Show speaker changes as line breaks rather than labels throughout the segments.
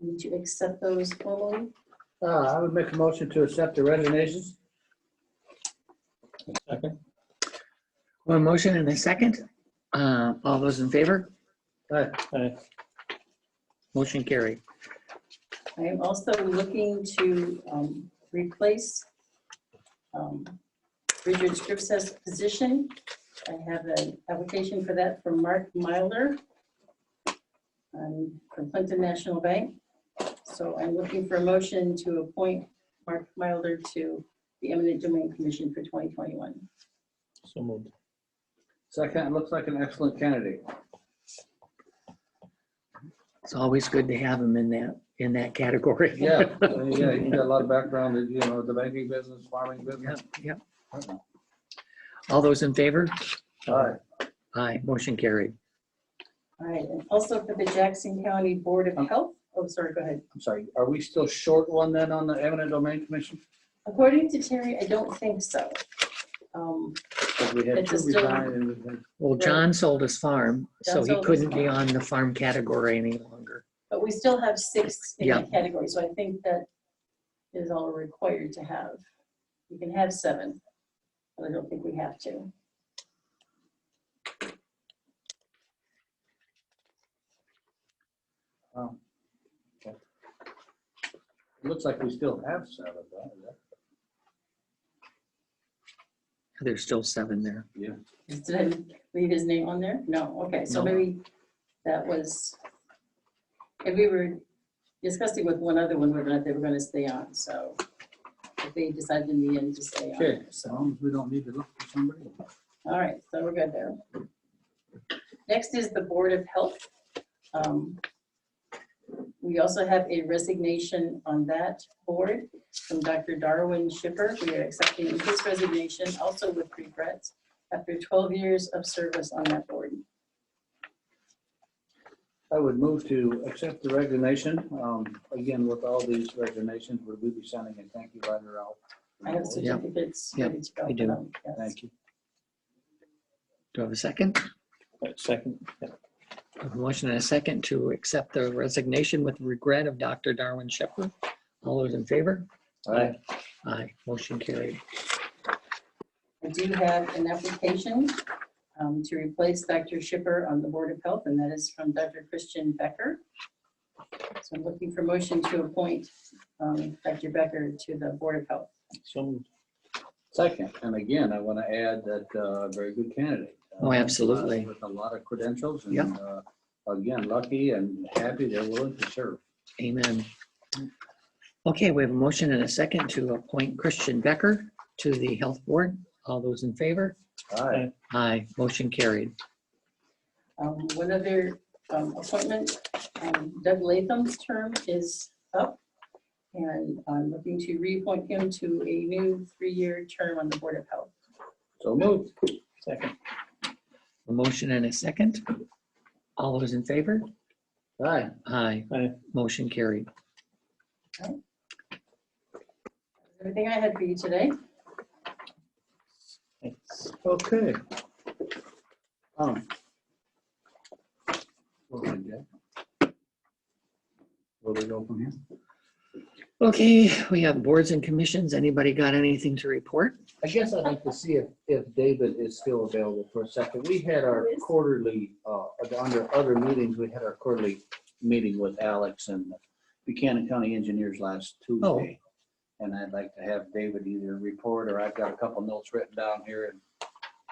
Need to accept those fully.
Uh, I would make a motion to accept the resignations.
Second.
One motion and a second. Uh, All those in favor?
Aye.
Aye.
Motion carried.
I am also looking to um, replace um, Richard Scripps' position. I have an application for that from Mark Myler um, from Clinton National Bank. So I'm looking for a motion to appoint Mark Myler to the eminent domain commission for 2021.
So moved.
Second, it looks like an excellent candidate.
It's always good to have them in that, in that category.
Yeah, uh, yeah, he's got a lot of background, in, you know, the banking business, farming business.
Yeah. All those in favor?
Aye.
Aye, motion carried.
All right, and also for the Jackson County Board of Health. Oh, sorry, go ahead.
I'm sorry, are we still short one then on the eminent domain commission?
According to Terry, I don't think so. Um,
Because we had
It's
two
still-
resign and we had-
Well, John sold his farm, so
John
he
sold his
couldn't be
farm.
on the farm category any longer.
But we still have six in
Yeah.
that category, so I think that is all we're required to have. You can have seven, but I don't think we have to.
um, okay. It Looks like we still have seven, right? Is that-
There's still seven there.
Did I leave his name on there? No, okay, so
No.
maybe that was, and we were discussing with one other one, whether or not they were gonna stay on, so if they decided in the end to stay on.
Okay, as long as we don't need to look for somebody.
All right, so we're good there. Next is the Board of Health. Um, We also have a resignation on that board from Dr. Darwin Shipper. We are accepting his resignation, also with regrets, after 12 years of service on that board.
I would move to accept the resignation. Um, Again, with all these resignations, would we be sending a thank you letter out?
I have
Yeah.
certificates.
Yeah,
ready to go
we
for
do.
them, yes.
Thank you.
Do I have a second?
Right, Second. Yeah.
I have A motion and a second to accept the resignation with regret of Dr. Darwin Shepherd. All those in favor?
Aye.
Aye, motion carried.
I do have an application um, to replace Dr. Shipper on the Board of Health, and that is from Dr. Christian Becker. So I'm looking for motion to appoint um, Dr. Becker to the Board of Health.
So moved.
Second, and again, I want to add that uh, very good candidate. Uh,
Oh, absolutely.
With a lot of credentials and
Yep.
uh, again, lucky and happy they're willing to serve.
Amen. Okay, we have a motion and a second to appoint Christian Becker to the Health Board. All those in favor?
Aye.
Aye, motion carried.
Um, One other um, appointment, um, Doug Latham's term is up, and I'm looking to reappoint him to a new three-year term on the Board of Health.
So moved.
Second.
A motion and a second. All those in favor?
Aye.
Aye.
Aye.
Motion carried.
Everything I had for you today.
Thanks.
Okay. Um, what do we do? Where do we go from here?
Okay, we have boards and commissions. Anybody got anything to report?
I guess I'd like to see if, if David is still available for a second. We had our
Yes.
quarterly, uh, under other meetings, we had our quarterly meeting with Alex and Buchanan County Engineers last
Oh.
Tuesday. And I'd like to have David either report, or I've got a couple notes written down here. and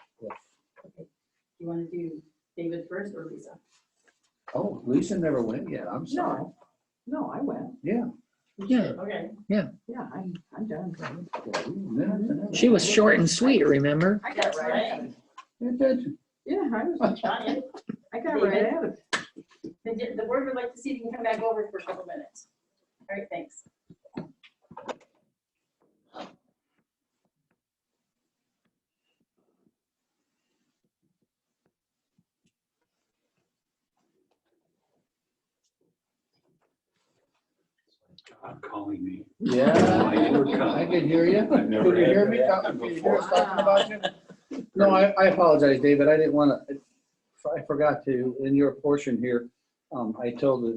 You want to do David first or Lisa?
Oh, Lisa never went yet. I'm sorry.
No, no, I went.
Yeah.
Yeah,
Okay.
Yeah, I'm, I'm done.
yeah, we- minutes and everything.
she was short and sweet, remember?
I got
That's
right
right.
at it.
You did.
Yeah, I was,
Tanya?
I got right at it.
The, the board would like to see if you can come back over for a couple minutes. All right, thanks.
God calling me.
Yeah, I can hear you.
I've never
Could you
had
hear me
that
talking,
happen
could you hear
before.
us talking about you? No, I, I apologize, David. I didn't want to, I forgot to, in your portion here, um, I told the